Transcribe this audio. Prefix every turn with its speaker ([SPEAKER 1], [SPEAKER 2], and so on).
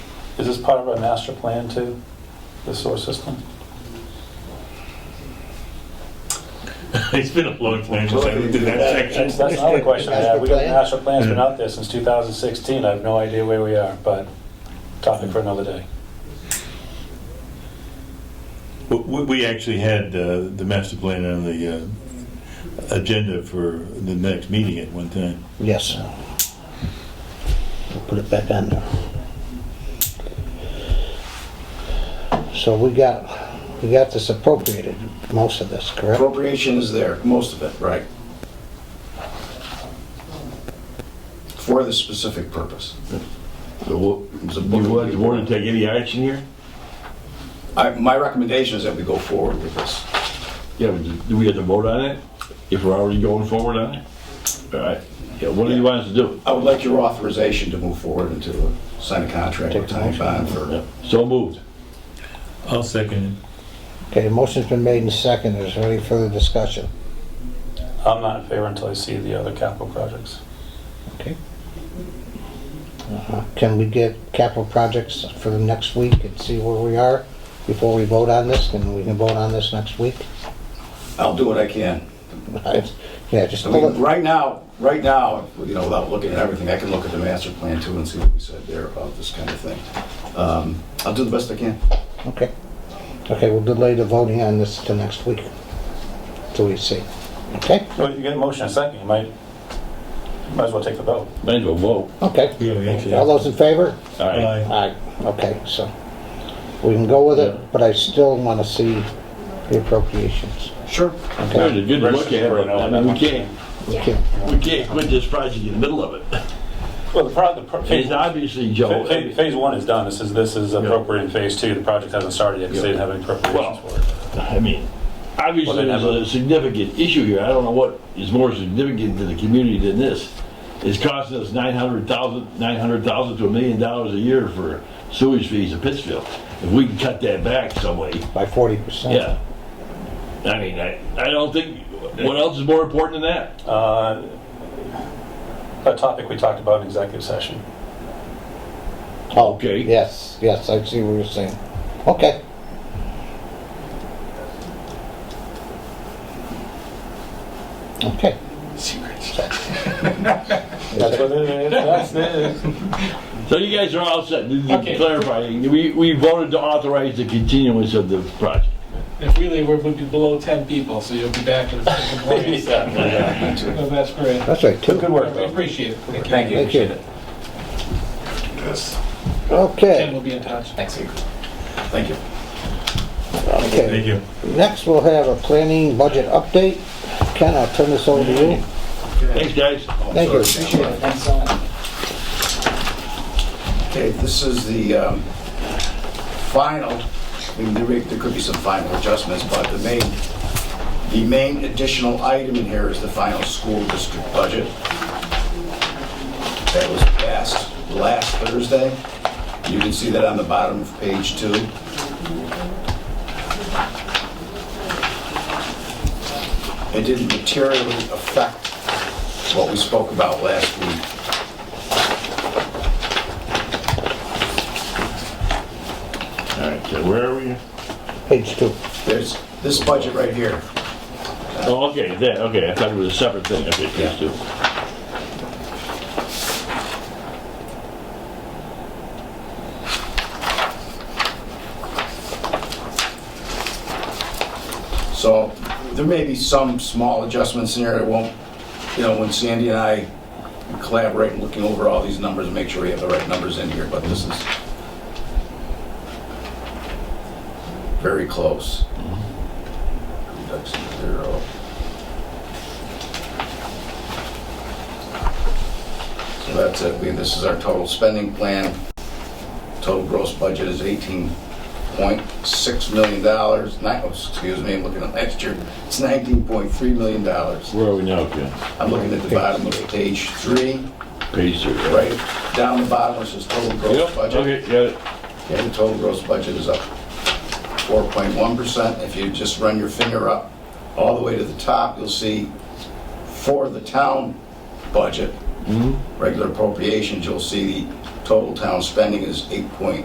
[SPEAKER 1] Is this part of our master plan too, the sewer system?
[SPEAKER 2] It's been a long time since I looked at that
[SPEAKER 1] That's
[SPEAKER 2] section.
[SPEAKER 1] that's another question I have. We got the
[SPEAKER 3] Master
[SPEAKER 1] master plan's been out there since 2016. I have no idea where we are, but topic for another day.
[SPEAKER 2] W- w- We actually had uh, the master plan on the uh, agenda for the next meeting at one time.
[SPEAKER 3] Yes. We'll Put it back on there. So we got, we got this appropriated, most of this, correct?
[SPEAKER 4] Appropriation is there, most of it, right? For the specific purpose.
[SPEAKER 5] So what-
[SPEAKER 4] It's a book.
[SPEAKER 5] You want, you want to take any action here?
[SPEAKER 4] I- My recommendation is that we go forward with this.
[SPEAKER 5] Yeah, but do- do we have to vote on it? If we're already going forward on it? All right, yeah, what do you want us to do?
[SPEAKER 4] I would like your authorization to move forward and to sign a contract with Time Bond for,
[SPEAKER 5] Yeah, So moved.
[SPEAKER 2] I'll second
[SPEAKER 3] Okay, motion's been made and seconded. Is there any further discussion?
[SPEAKER 1] I'm not in favor until I see the other capital projects.
[SPEAKER 3] Uh, Can we get capital projects for the next week and see where we are before we vote on this? And we can vote on this next week?
[SPEAKER 4] I'll do what I can.
[SPEAKER 3] Yeah, just
[SPEAKER 4] I mean,
[SPEAKER 3] pull it.
[SPEAKER 4] right now, right now, you know, without looking at everything, I can look at the master plan too and see what we said there about this kind of thing. Um, I'll do the best I can.
[SPEAKER 3] Okay. Okay, we'll delay the voting on this to next week. Till we see. Okay?
[SPEAKER 1] Well, you get a motion in a second, you might, might as well take the vote.
[SPEAKER 5] Might as well vote.
[SPEAKER 3] Okay.
[SPEAKER 2] it. Yeah, we actually-
[SPEAKER 3] All those in favor?
[SPEAKER 5] All right.
[SPEAKER 2] Aye.
[SPEAKER 3] Aye. Okay, so we can go with it, but I still want to see the appropriations.
[SPEAKER 4] Sure.
[SPEAKER 5] There's a good look at it. I mean, we can't,
[SPEAKER 3] We can't,
[SPEAKER 5] we can't quit this project in the middle of it.
[SPEAKER 1] Well, the pro- the pro- phase,
[SPEAKER 5] It's obviously, Joe,
[SPEAKER 1] phase- phase one is done. This is, this is appropriate in phase two. The project hasn't started yet because they didn't have any
[SPEAKER 5] Well-
[SPEAKER 1] appropriations for it.
[SPEAKER 5] I mean, obviously
[SPEAKER 1] Well, then
[SPEAKER 5] there's a significant issue here. I don't know what is more significant to the community than this. It's costing us nine hundred thousand, nine hundred thousand to a million dollars a year for sewage fees in Pittsfield. If we can cut that back some way,
[SPEAKER 3] by forty percent.
[SPEAKER 5] yeah. I mean, I, I don't think, what else is more important than that?
[SPEAKER 1] Uh, A topic we talked about in executive session.
[SPEAKER 5] Okay.
[SPEAKER 3] Oh, Yes, yes, I see what you're saying. Okay. Okay.
[SPEAKER 1] That's what it is. That's it.
[SPEAKER 5] So you guys are all set. Just
[SPEAKER 6] Okay.
[SPEAKER 5] Clarifying, we, we voted to authorize the continuance of the project.
[SPEAKER 6] If we leave, we're we'll be below 10 people, so you'll be back in the morning. No, That's great.
[SPEAKER 3] That's right, two.
[SPEAKER 1] Good work,
[SPEAKER 6] I
[SPEAKER 1] though.
[SPEAKER 6] appreciate it.
[SPEAKER 7] Thank you,
[SPEAKER 3] Thank you.
[SPEAKER 7] appreciate it.
[SPEAKER 6] Ken
[SPEAKER 3] Okay,
[SPEAKER 6] will be in touch.
[SPEAKER 7] Thanks.
[SPEAKER 4] Thank you.
[SPEAKER 3] okay.
[SPEAKER 2] Thank you.
[SPEAKER 3] Next, we'll have a planning budget update. Ken, I'll turn this over to you.
[SPEAKER 5] Thanks, guys.
[SPEAKER 3] Thank you.
[SPEAKER 4] Appreciate it.
[SPEAKER 7] Thanks so much.
[SPEAKER 4] Okay, this is the um, final, I mean, there may- there could be some final adjustments, but the main, the main additional item in here is the final school district budget. That was passed last Thursday. You can see that on the bottom of page two. It didn't materially affect what we spoke about last week.
[SPEAKER 5] All right, so where are we?
[SPEAKER 3] Page two.
[SPEAKER 4] There's this budget right here.
[SPEAKER 5] Oh, okay, that, okay, I thought it was a separate thing, okay, please do.
[SPEAKER 4] So there may be some small adjustments in there that won't, you know, when Sandy and I collaborate and looking over all these numbers and make sure we have the right numbers in here, but this is very close. Reduction to zero. So that's it. We, this is our total spending plan. Total gross budget is 18 Point six million dollars, oh, excuse me, I'm looking at last year, it's $19.3 million. dollars.
[SPEAKER 5] Where are we now, Ken?
[SPEAKER 4] I'm looking at the bottom of page three,
[SPEAKER 5] Page three. right?
[SPEAKER 4] right down the bottom, it says total gross
[SPEAKER 5] Yep,
[SPEAKER 4] budget.
[SPEAKER 5] okay, got it.
[SPEAKER 4] Okay, the total gross budget is up 4.1%. If you just run your finger up all the way to the top, you'll see for the town budget, regular appropriations, you'll see the total town spending is eight point.